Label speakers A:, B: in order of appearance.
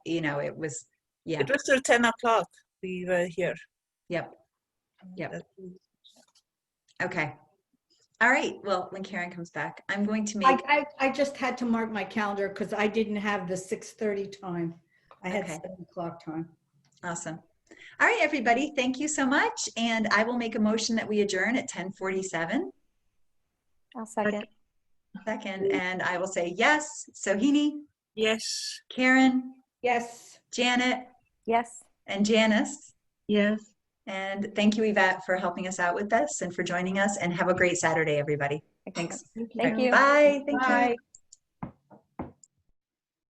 A: you know, it was, yeah,
B: It was till 10 o'clock we were here.
A: yep, Yep.
B: That-
A: okay. All right, well, when Karen comes back, I'm going to
C: I,
A: make,
C: I, I just had to mark my calendar because I didn't have the 6:30 time. I had
A: Okay.
C: 7 o'clock time.
A: awesome. All right, everybody, thank you so much, and I will make a motion that we adjourn at 10:47.
D: I'll second.
A: Second, and I will say yes, Sohini,
B: Yes.
A: Karen,
C: Yes.
A: Janet,
D: Yes.
A: and Janice.
E: Yes.
A: And thank you, Yvette, for helping us out with this and for joining us, and have a great Saturday, everybody. Thanks.
D: Thank you.
A: Bye, thank you.